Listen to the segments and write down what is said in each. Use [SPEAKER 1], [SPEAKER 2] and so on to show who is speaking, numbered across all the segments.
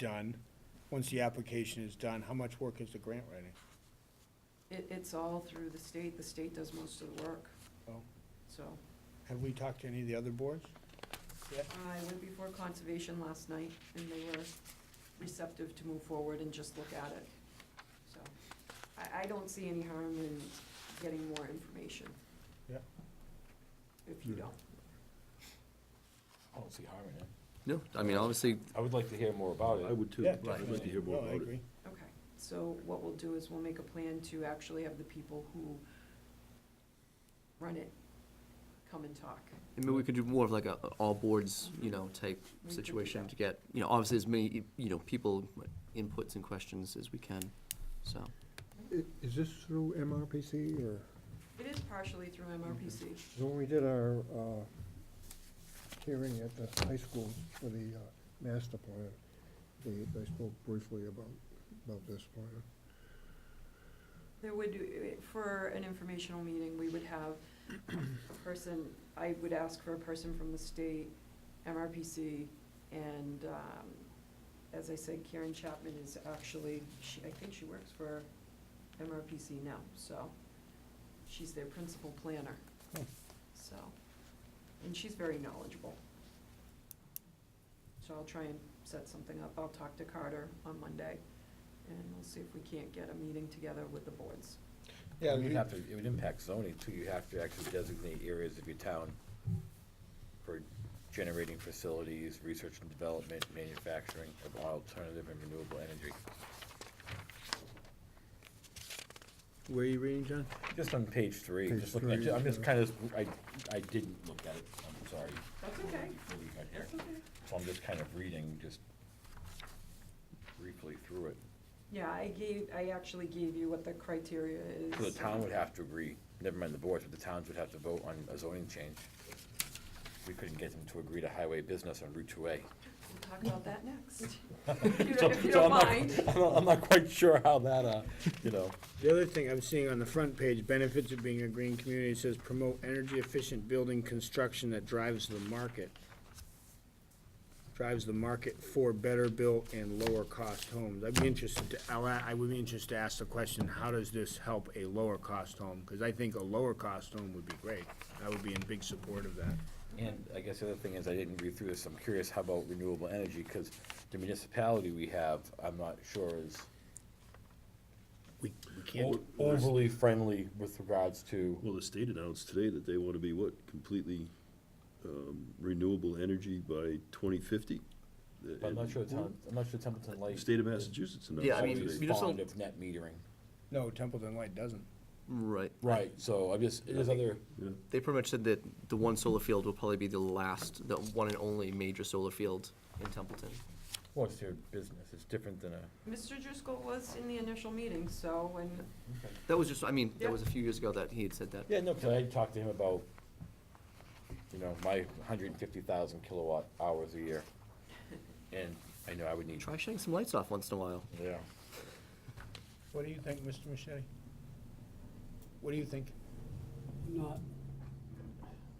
[SPEAKER 1] done, once the application is done, how much work is the grant writing?
[SPEAKER 2] It, it's all through the state, the state does most of the work,
[SPEAKER 1] Oh,
[SPEAKER 2] so.
[SPEAKER 1] Have we talked to any of the other boards?
[SPEAKER 2] I went before conservation last night, and they were receptive to move forward and just look at it, so. I, I don't see any harm in getting more information.
[SPEAKER 1] Yeah.
[SPEAKER 2] If you don't.
[SPEAKER 3] I don't see harm in it.
[SPEAKER 4] No, I mean, obviously,
[SPEAKER 3] I would like to hear more about
[SPEAKER 5] I
[SPEAKER 3] it.
[SPEAKER 5] would too.
[SPEAKER 1] Yeah,
[SPEAKER 5] I'd like to hear more
[SPEAKER 1] No, I
[SPEAKER 5] about it.
[SPEAKER 1] agree.
[SPEAKER 2] Okay, so what we'll do is we'll make a plan to actually have the people who run it come and talk.
[SPEAKER 4] I mean, we could do more of like a, a all boards, you know, type
[SPEAKER 2] We could do
[SPEAKER 4] situation
[SPEAKER 2] that.
[SPEAKER 4] to get, you know, obviously as many, you know, people inputs and questions as we can, so.
[SPEAKER 6] I- Is this through MRPC or,
[SPEAKER 2] It is partially through MRPC.
[SPEAKER 6] 'cause when we did our uh, hearing at the high school for the uh, master plan, they, they spoke briefly about, about this plan.
[SPEAKER 2] There would, for an informational meeting, we would have a person, I would ask for a person from the state, MRPC, and, um, as I said, Karen Chapman is actually, she, I think she works for MRPC now, so she's their principal planner.
[SPEAKER 1] Oh.
[SPEAKER 2] So, and she's very knowledgeable. So I'll try and set something up. I'll talk to Carter on Monday, and we'll see if we can't get a meeting together with the boards.
[SPEAKER 1] Yeah,
[SPEAKER 3] You'd
[SPEAKER 1] we-
[SPEAKER 3] have to, it would impact zoning too, you have to actually designate areas of your town for generating facilities, research and development, manufacturing of alternative and renewable energy.
[SPEAKER 5] Where are you reading, John?
[SPEAKER 3] Just on page three,
[SPEAKER 6] Page
[SPEAKER 3] just looking, at-
[SPEAKER 6] three,
[SPEAKER 3] I'm just
[SPEAKER 6] yeah.
[SPEAKER 3] kind of, I, I didn't look at it, I'm sorry.
[SPEAKER 2] That's okay.
[SPEAKER 3] Before we got here.
[SPEAKER 2] That's okay.
[SPEAKER 3] So I'm just kind of reading, just briefly through it.
[SPEAKER 2] Yeah, I gave, I actually gave you what the criteria is.
[SPEAKER 3] So the town would have to agree, never mind the boards, but the towns would have to vote on a zoning change. We couldn't get them to agree to highway business on Route two A.
[SPEAKER 2] We'll talk about that next. If you
[SPEAKER 3] So-
[SPEAKER 2] don't- if you
[SPEAKER 3] so I'm
[SPEAKER 2] don't
[SPEAKER 3] not-
[SPEAKER 2] mind.
[SPEAKER 3] I'm not, I'm not quite sure how that, uh, you know,
[SPEAKER 1] The other thing I'm seeing on the front page, benefits of being a green community, it says promote energy efficient building construction that drives the market. Drives the market for better built and lower cost homes. I'd be interested to, I'll, a- I would be interested to ask the question, how does this help a lower cost home? Cause I think a lower cost home would be great. I would be in big support of that.
[SPEAKER 3] and I guess the other thing is, I didn't read through this, I'm curious, how about renewable energy? Because the municipality we have, I'm not sure is
[SPEAKER 1] We, we can't,
[SPEAKER 3] o- overly friendly with regards to,
[SPEAKER 5] Oh, Well, the state announced today that they want to be what, completely um, renewable energy by 2050?
[SPEAKER 3] but I'm not sure the town, I'm not sure Templeton
[SPEAKER 5] The
[SPEAKER 3] Lake.
[SPEAKER 5] state of Massachusetts announced
[SPEAKER 4] Yeah, I
[SPEAKER 3] always
[SPEAKER 4] mean,
[SPEAKER 3] is
[SPEAKER 5] today.
[SPEAKER 4] you just
[SPEAKER 3] fond
[SPEAKER 4] don't-
[SPEAKER 3] of net metering.
[SPEAKER 1] no, Templeton Light doesn't.
[SPEAKER 4] Right.
[SPEAKER 3] Right, so I'm just, there's other.
[SPEAKER 5] Yeah.
[SPEAKER 4] They pretty much said that the one solar field will probably be the last, the one and only major solar field in Templeton.
[SPEAKER 3] Well, it's their business, it's different than a.
[SPEAKER 2] Mr. Driscoll was in the initial meeting, so, and
[SPEAKER 4] That was just, I mean,
[SPEAKER 2] Yeah.
[SPEAKER 4] that was a few years ago that he had said that.
[SPEAKER 3] Yeah, no, 'cause I talked to him about, you know, my hundred and fifty thousand kilowatt hours a year, and I know I would need.
[SPEAKER 4] Try shutting some lights off once in a while.
[SPEAKER 3] Yeah.
[SPEAKER 1] What do you think, Mr. Machete? What do you think?
[SPEAKER 7] Not,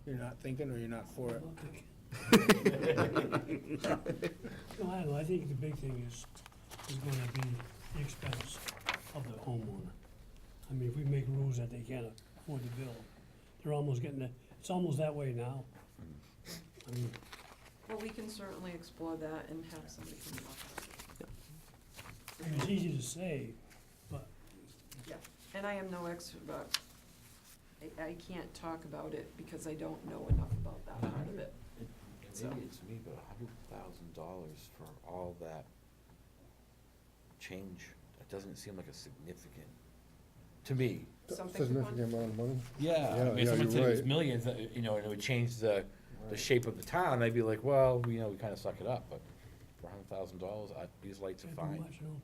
[SPEAKER 1] You're not thinking or you're not for it?
[SPEAKER 7] no, I don't know, I think the big thing is, is gonna be the expense of the homeowner. I mean, if we make rules that they can't afford to build, they're almost getting, it- it's almost that way now. I mean,
[SPEAKER 2] Well, we can certainly explore that and have somebody come talk about it.
[SPEAKER 7] I mean, it's easy to say, but
[SPEAKER 2] And I am no expert, about- I, I can't talk about it because I don't know enough about that
[SPEAKER 3] Uh-huh.
[SPEAKER 2] part of it. So-
[SPEAKER 3] Maybe it's me, but a hundred thousand dollars for all that change, that doesn't seem like a significant, to me.
[SPEAKER 2] Something to
[SPEAKER 6] Significant
[SPEAKER 2] ponder.
[SPEAKER 6] amount of money.
[SPEAKER 3] Yeah, I
[SPEAKER 6] Yeah,
[SPEAKER 3] mean,
[SPEAKER 6] yeah,
[SPEAKER 3] someone
[SPEAKER 6] you're
[SPEAKER 3] said it was
[SPEAKER 6] right.
[SPEAKER 3] millions, uh, you know, and it would change the, the shape of the town, I'd be like, well, you know, we kinda suck it up, but for a hundred thousand dollars, I, these lights are
[SPEAKER 7] pretty
[SPEAKER 3] fine.
[SPEAKER 7] much, you know,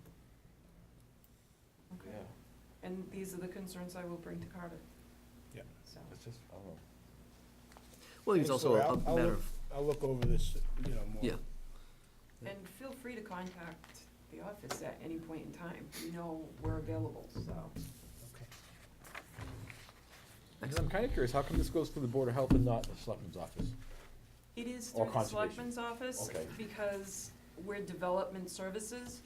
[SPEAKER 2] Okay. And these are the concerns I will bring to Carter.
[SPEAKER 1] Yeah.
[SPEAKER 2] So,
[SPEAKER 3] It's just, I don't know.
[SPEAKER 4] Well, it's
[SPEAKER 1] Okay,
[SPEAKER 4] also
[SPEAKER 1] so I'll-
[SPEAKER 4] a
[SPEAKER 1] I'll
[SPEAKER 4] matter
[SPEAKER 1] look-
[SPEAKER 4] of,
[SPEAKER 1] I'll look over this, you know, more.
[SPEAKER 4] yeah.
[SPEAKER 2] and feel free to contact the office at any point in time. You know, we're available, so.
[SPEAKER 1] Okay.
[SPEAKER 3] Because I'm kinda curious, how come this goes through the Board of Health and not the Selectmen's office?
[SPEAKER 2] It is through
[SPEAKER 3] Or
[SPEAKER 2] the
[SPEAKER 3] conservation.
[SPEAKER 2] selectman's office,
[SPEAKER 3] Okay.
[SPEAKER 2] because we're development services,